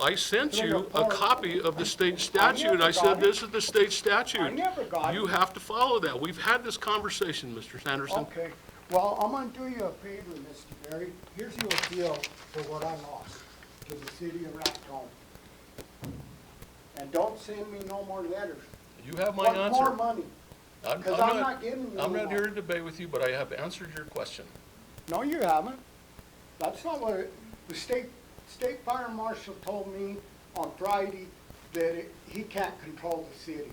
I sent They're you a apart. copy of the state I statute. I never said, got it. this is the state statute. I never got You it. have to follow that. We've had this conversation, Mr. Sanderson. Okay, well, I'm gonna do you a favor, Mr. Berry. Here's your appeal for what I lost to the city of Raton. And don't send me no more letters. You have my Want more answer. money. I'm- 'cause I'm not giving you I'm no not more. here to debate with you, but I have answered your question. No, you haven't. That's not what, it- the state, state fire marshal told me on Friday that it- he can't control the city.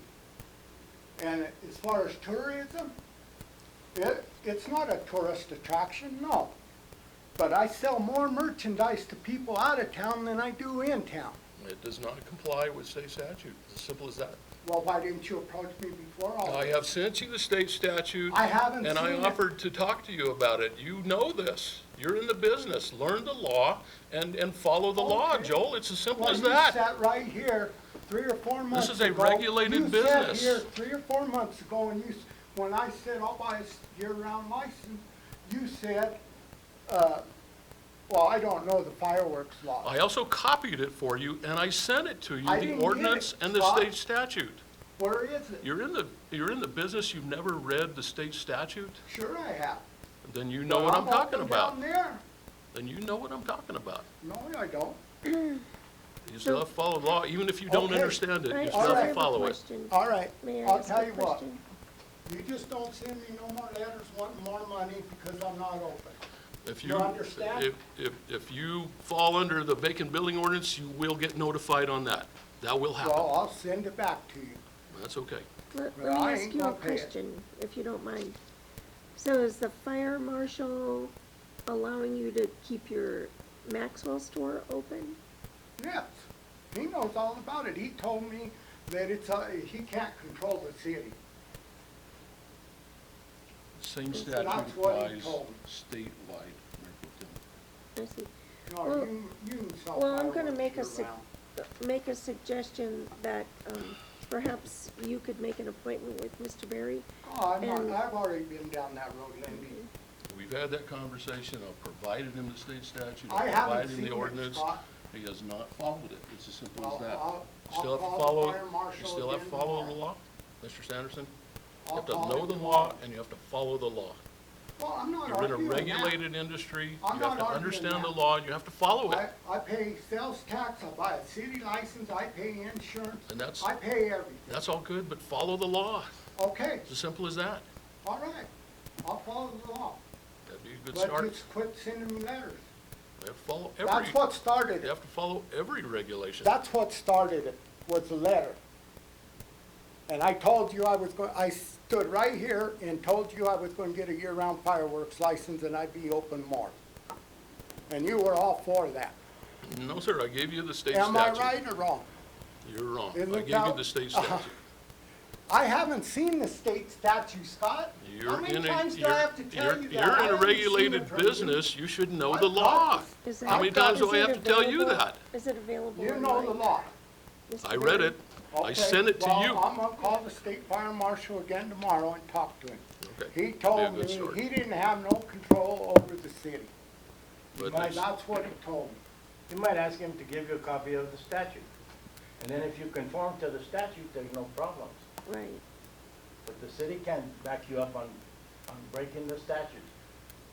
And as far as tourism, it, it's not a tourist attraction, no. But I sell more merchandise to people out of town than I do in town. It does not comply with state statute. It's as simple as that. Well, why didn't you approach me before all I this? have sent you the state statute. Oh. I haven't And I seen it. offered to talk to you about it. You know this. You're in the business. Learn the law and, and follow the law, Okay. Joel. It's as simple Well, as you that. sat right here three or four months ago. is a regulated business. You sat here three or four months ago and you, s- when I said I'll buy a s- year-round license, you said, uh, well, I don't know the fireworks law. I also copied it for you and I sent it to you, I the didn't get it, ordinance and the Scott. state statute. Where is it? You're in the, you're in the business, you've never read the state statute? Sure I have. Then you know what I'm talking walking about. Down there. Then you know what I'm talking about. No, I don't. You still have to follow the law, even if you don't Okay. understand it, I you I still Alright. have have to a follow it. question. All right, May I I'll ask tell a you what. question? You just don't send me no more letters wanting more money because I'm not open. If You you, understand? if, if, if you fall under the vacant building ordinance, you will get notified on that. That will Well, happen. I'll send it back to you. That's okay. Let, Well, let me I ask ain't you a gonna pay it. question, if you don't mind. So is the fire marshal allowing you to keep your Maxwell store open? Yes, he knows all about it. He told me that it's, uh, he can't control the city. Same statute what he applies told me. statewide. I see. No, Well- you, you can sell Well, I'm gonna fireworks make a, year sug- round. Uh, make a suggestion that, um, perhaps you could make an appointment with Mr. Berry. Oh, I'm and- not, I've already been down that road, Lindy. We've had that conversation. I've provided him the state statute. I I've haven't provided him seen the it, ordinance. Scott. He has not followed it. It's as simple I'll- as that. I'll- You I'll still have to call the follow, fire you marshal still have to again follow the tomorrow. law, Mr. Sanderson. You I'll have to call know him the tomorrow. law and you have to follow the law. Well, I'm not You're in a arguing that. regulated industry. I'm not You have to arguing understand the that. law. You have to follow I, it. I pay sales tax, I buy a city license, I pay insurance, And that's, I pay everything. that's all good, but follow the law. Okay, It's as simple as that. all right, I'll follow the law. That'd be a good But start. just quit sending me letters. You have to follow every, That's what started you it. have to follow every regulation. That's what started it, was the letter. And I told you I was going, I stood right here and told you I was going to get a year-round fireworks license and I'd be open more. And you were all for that. No, sir, I gave you the state Am I statute. right or wrong? You're wrong. I Isn't gave you that- the state statute. I haven't seen the state statute, Scott. How You're many in a- times do you're- I have to tell you're- you that? You're I in a haven't seen it regulated from you. business. You should know I've the got law. this. Is How it- many I've got times do is I it have to tell you available- that? Is it available You know the online, law. Mr. I read Berry? it. I Okay, sent it to you. Well, I'm gonna call the state fire marshal again tomorrow and talk to him. Okay, He that'd be a told good me start. he didn't have no control over the city. But Why, that's- that's what he told me. You might ask him to give you a copy of the statute. And then if you conform to the statute, there's no problems. Right. But the city can back you up on, on breaking the statute.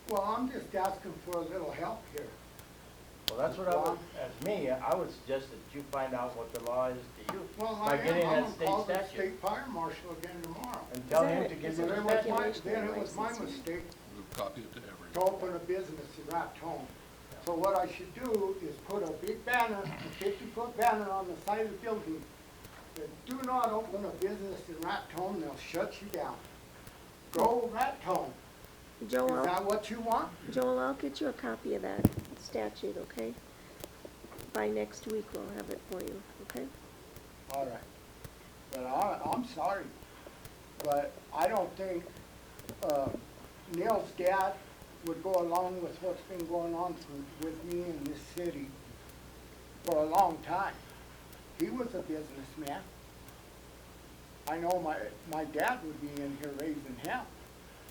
Well, I'm just asking for a little help here. Well, that's what I would, as me, I would suggest that you find out what the law is to you Well, I by am, getting I'm that gonna state call the statute. state fire marshal again tomorrow. And tell Is him that- to give is you Then that the it what was statute. you- my, Regulation then it was my license. mistake We'll copy it to every. to open a business in Raton. So what I should do is put a big banner, a fifty-foot banner on the side of the building. that Do not open a business in Raton, they'll shut you down. Go Raton. Is Joel, that what you want? Joel, I'll get you a copy of that statute, okay? By next week, we'll have it for you, okay? All right. But I, I'm sorry, but I don't think, uh, Neil's dad would go along with what's been going on for- with me in this city for a long time. He was a businessman. I know my, my dad would be in here raising hell.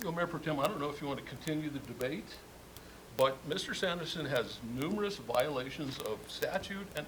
Well, Mayor Pro Tem, I don't know if you want to continue the debate, but Mr. Sanderson has numerous violations of statute and